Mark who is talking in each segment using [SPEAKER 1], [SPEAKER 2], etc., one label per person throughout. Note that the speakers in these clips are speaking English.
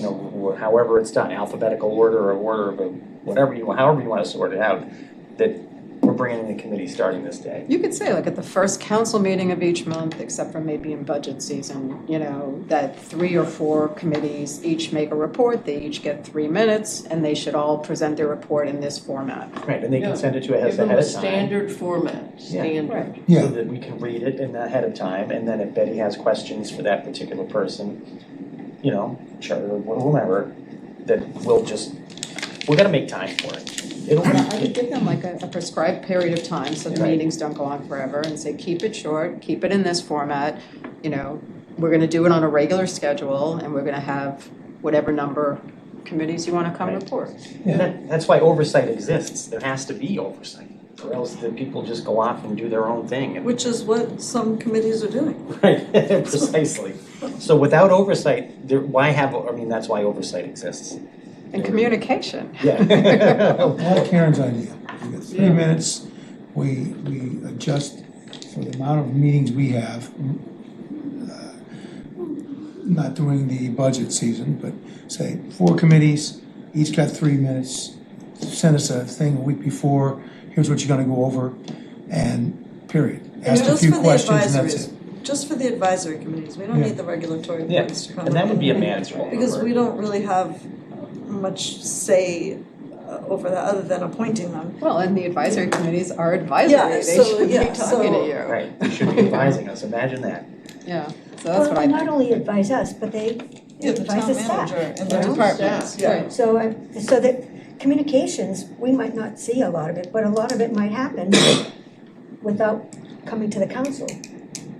[SPEAKER 1] know, wh- however it's done, alphabetical order or order of, a- whatever you, however you wanna sort it out, that we're bringing in the committee starting this day.
[SPEAKER 2] You could say like at the first council meeting of each month, except for maybe in budget season, you know, that three or four committees each make a report, they each get three minutes, and they should all present their report in this format.
[SPEAKER 1] Right, and they
[SPEAKER 3] Yeah.
[SPEAKER 1] can send it to us
[SPEAKER 3] Give them
[SPEAKER 1] ahead
[SPEAKER 3] a
[SPEAKER 1] of time,
[SPEAKER 3] standard format, standard.
[SPEAKER 1] so that we can read it in ahead of time, and then if Betty has questions for that particular person, you know, sure, whomever, that we'll just, we're gonna make time for it. It'll,
[SPEAKER 2] But I would give them like a a prescribed period of time, so the
[SPEAKER 1] Right.
[SPEAKER 2] meetings don't go on forever, and say, keep it short, keep it in this format, you know, we're gonna do it on a regular schedule, and we're gonna have whatever number committees you wanna come
[SPEAKER 1] Right.
[SPEAKER 2] report.
[SPEAKER 1] And that, that's why oversight exists, there has to be oversight, or else the people just go off and do their own thing and.
[SPEAKER 4] Which is what some committees are doing.
[SPEAKER 1] Right, precisely. So without oversight, there, why have, I mean, that's why oversight exists.
[SPEAKER 2] And communication.
[SPEAKER 1] Yeah.
[SPEAKER 5] All Karen's idea. We get three
[SPEAKER 3] Yeah.
[SPEAKER 5] minutes, we, we adjust for the amount of meetings we have. uh, Not during the budget season, but say four committees, each got three minutes. Send us a thing a week before, here's what you're gonna go over, and period. Ask a
[SPEAKER 4] Just
[SPEAKER 5] few
[SPEAKER 4] for the
[SPEAKER 5] questions and that's
[SPEAKER 4] advisories.
[SPEAKER 5] it.
[SPEAKER 4] Just for the advisory committees, we don't
[SPEAKER 5] Yeah.
[SPEAKER 4] need the regulatory
[SPEAKER 1] Yeah,
[SPEAKER 4] boards to come.
[SPEAKER 1] and that would be a
[SPEAKER 4] in.
[SPEAKER 1] manageable number.
[SPEAKER 4] Because we don't really have much say uh, over that, other than appointing them.
[SPEAKER 2] Well, and the advisory committees are advisory,
[SPEAKER 4] Yeah,
[SPEAKER 2] they
[SPEAKER 4] so-
[SPEAKER 2] should be
[SPEAKER 4] yeah,
[SPEAKER 2] talking to
[SPEAKER 4] so-
[SPEAKER 2] you,
[SPEAKER 1] Right, they should be advising us, imagine that.
[SPEAKER 2] yeah, so that's what I
[SPEAKER 6] Well, they not
[SPEAKER 2] think.
[SPEAKER 6] only advise us, but they
[SPEAKER 4] Yeah, the
[SPEAKER 6] advise
[SPEAKER 4] town
[SPEAKER 6] the staff.
[SPEAKER 4] manager and
[SPEAKER 2] The
[SPEAKER 4] their-
[SPEAKER 2] Departments,
[SPEAKER 4] Yeah.
[SPEAKER 2] right,
[SPEAKER 6] So I, so that communications, we might not see a lot of it, but a lot of it might happen without coming to the council.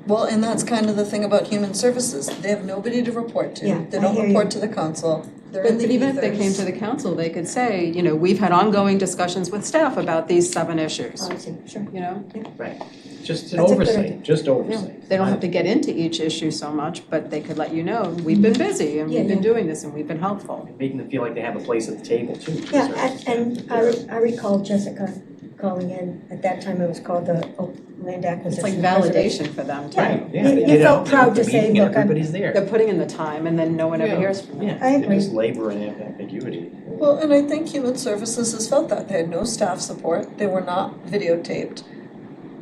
[SPEAKER 4] Well, and that's kind of the thing about human services, they have nobody to report
[SPEAKER 6] Yeah,
[SPEAKER 4] to, they
[SPEAKER 6] I
[SPEAKER 4] don't
[SPEAKER 6] hear you.
[SPEAKER 4] report to the council, they're in
[SPEAKER 2] but
[SPEAKER 4] the
[SPEAKER 2] but even if they came
[SPEAKER 4] ethers.
[SPEAKER 2] to the council, they could say, you know, we've had ongoing discussions with staff about these seven issues,
[SPEAKER 6] I see, sure.
[SPEAKER 2] you know?
[SPEAKER 1] Right. Just an
[SPEAKER 6] That's a good idea.
[SPEAKER 1] oversight, just oversight.
[SPEAKER 2] They don't have to get into each issue so much, but they could let you know, we've been busy, and we've
[SPEAKER 6] Yeah,
[SPEAKER 2] been
[SPEAKER 6] yeah.
[SPEAKER 2] doing this, and we've been helpful.
[SPEAKER 1] Making them feel like they have a place at the table too. to a
[SPEAKER 6] Yeah,
[SPEAKER 1] certain
[SPEAKER 6] and- and uh, I, re- I recall Jessica calling in, at that time it was called the O- Land
[SPEAKER 2] It's
[SPEAKER 6] Acquisition.
[SPEAKER 2] like
[SPEAKER 6] Preservation.
[SPEAKER 2] validation for them too.
[SPEAKER 1] Right, yeah, they
[SPEAKER 6] You- you
[SPEAKER 1] get
[SPEAKER 6] felt
[SPEAKER 1] out, they're at
[SPEAKER 6] proud
[SPEAKER 1] the
[SPEAKER 6] to say,
[SPEAKER 1] meeting
[SPEAKER 6] "Look,
[SPEAKER 1] and
[SPEAKER 6] I'm-
[SPEAKER 1] everybody's there.
[SPEAKER 2] They're putting in the time, and then no one ever
[SPEAKER 3] Yeah.
[SPEAKER 2] hears from them.
[SPEAKER 1] Yeah,
[SPEAKER 6] I
[SPEAKER 1] they're
[SPEAKER 6] agree.
[SPEAKER 1] just labor and ambiguity.
[SPEAKER 4] Well, and I think human services has felt that, they had no staff support, they were not videotaped.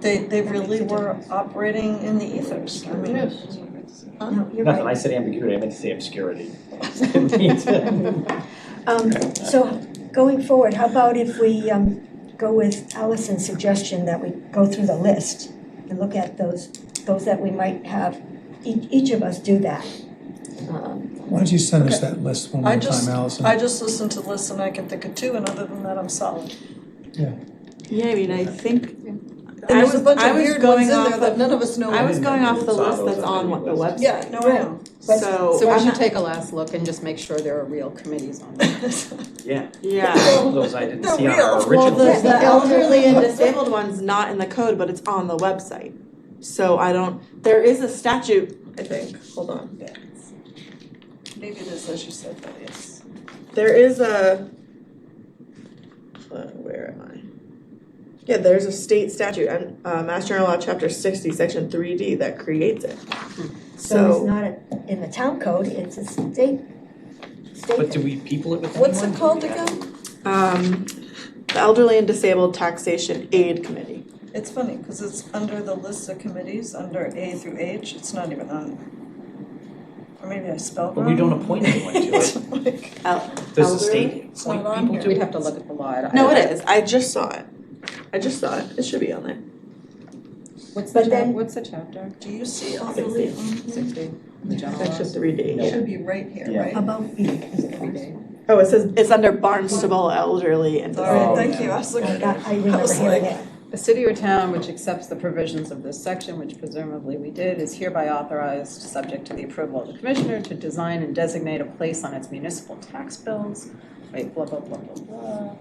[SPEAKER 4] They, they
[SPEAKER 6] That makes
[SPEAKER 4] really
[SPEAKER 6] a
[SPEAKER 4] were
[SPEAKER 6] difference.
[SPEAKER 4] operating in the ethers, I mean.
[SPEAKER 3] Yes.
[SPEAKER 6] No, you're
[SPEAKER 1] Nothing, I
[SPEAKER 6] right.
[SPEAKER 1] said ambiguity, I meant to say obscurity. Right,
[SPEAKER 6] Um, so going forward, how about if we, um, go with Allison's suggestion that we go through the list and look at those, those that we might have, each, each of us do that. Um,
[SPEAKER 5] Why don't you send us that list one
[SPEAKER 4] I
[SPEAKER 5] more
[SPEAKER 4] just-
[SPEAKER 5] time, Allison?
[SPEAKER 4] I just listened to the list and I can think of two, and other than that, I'm solid.
[SPEAKER 7] Yeah, I mean, I think, I
[SPEAKER 4] There's
[SPEAKER 7] was,
[SPEAKER 4] a bunch
[SPEAKER 7] I
[SPEAKER 4] of
[SPEAKER 7] was
[SPEAKER 4] weird ones in
[SPEAKER 7] going off
[SPEAKER 4] there that
[SPEAKER 7] of,
[SPEAKER 4] none of us know.
[SPEAKER 7] I was going off the
[SPEAKER 1] It's on
[SPEAKER 7] list that's
[SPEAKER 1] those
[SPEAKER 7] on what the
[SPEAKER 1] menu
[SPEAKER 7] website.
[SPEAKER 1] lists.
[SPEAKER 4] Yeah, no, I know.
[SPEAKER 6] But-
[SPEAKER 7] So,
[SPEAKER 2] So we
[SPEAKER 7] I'm
[SPEAKER 2] should
[SPEAKER 7] not,
[SPEAKER 2] take a last look and just make sure there are real committees on there.
[SPEAKER 1] Yeah,
[SPEAKER 7] yeah.
[SPEAKER 1] Some of those I didn't
[SPEAKER 4] They're
[SPEAKER 1] see on
[SPEAKER 4] real.
[SPEAKER 1] our
[SPEAKER 4] Well,
[SPEAKER 1] original.
[SPEAKER 7] Well, the,
[SPEAKER 1] list.
[SPEAKER 7] the elderly and disabled one's not in the code, but it's on the website. So I don't, there is a statute, I think, hold on.
[SPEAKER 4] Maybe it is, as you said, that yes.
[SPEAKER 7] There is a, uh, where am I? Yeah, there's a state statute, um, uh, Mass General Law, Chapter sixty, Section three D, that creates it.
[SPEAKER 6] So it's not a- in the town code, it's a state, state.
[SPEAKER 1] But do we people it with anyone?
[SPEAKER 4] What's it
[SPEAKER 1] Do
[SPEAKER 4] called
[SPEAKER 1] we have-
[SPEAKER 4] again?
[SPEAKER 7] Um, the Elderly and Disabled Taxation Aid Committee.
[SPEAKER 4] It's funny, because it's under the list of committees, under A through H, it's not even on. Or maybe I spelled
[SPEAKER 1] But
[SPEAKER 4] wrong.
[SPEAKER 1] we don't appoint anyone to it.
[SPEAKER 4] It's like-
[SPEAKER 7] El-
[SPEAKER 1] Does the
[SPEAKER 7] elderly?
[SPEAKER 1] state
[SPEAKER 4] It's
[SPEAKER 1] appoint
[SPEAKER 4] not on
[SPEAKER 1] people
[SPEAKER 4] here.
[SPEAKER 1] to
[SPEAKER 2] We'd have to look at the law. I-
[SPEAKER 7] No,
[SPEAKER 2] I-
[SPEAKER 7] it is. I just saw it. I just saw it. It should be on there.
[SPEAKER 2] What's the chap,
[SPEAKER 6] But then-
[SPEAKER 2] what's the chapter?
[SPEAKER 4] Do you see all the
[SPEAKER 7] Sixty.
[SPEAKER 2] Sixty, the general law?
[SPEAKER 7] Section three D.
[SPEAKER 4] It should be right here,
[SPEAKER 1] Yeah.
[SPEAKER 4] right?
[SPEAKER 6] About B, is it B?
[SPEAKER 7] Oh, it says it's under Barnstable Elderly and
[SPEAKER 4] All right,
[SPEAKER 1] Oh,
[SPEAKER 4] thank
[SPEAKER 1] yeah.
[SPEAKER 4] you, I was
[SPEAKER 6] I
[SPEAKER 4] looking.
[SPEAKER 6] got, I
[SPEAKER 4] I
[SPEAKER 6] remember
[SPEAKER 4] was
[SPEAKER 6] hearing
[SPEAKER 4] like-
[SPEAKER 6] it.
[SPEAKER 2] A city or town which accepts the provisions of this section, which presumably we did, is hereby authorized, subject to the approval of the commissioner, to design and designate a place on its municipal tax bills, wait, blah, blah, blah, blah, blah,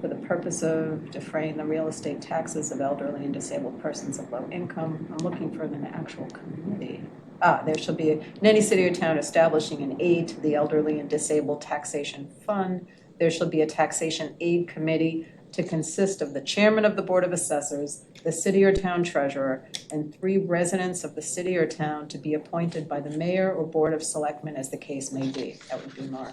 [SPEAKER 2] for the purpose of defraying the real estate taxes of elderly and disabled persons of low income. I'm looking for an actual committee. Ah, there shall be, in any city or town establishing an aid to the elderly and disabled taxation fund, there shall be a taxation aid committee to consist of the chairman of the Board of Assessors, the city or town treasurer, and three residents of the city or town to be appointed by the mayor or board of selectmen as the case may be. That would be Mark.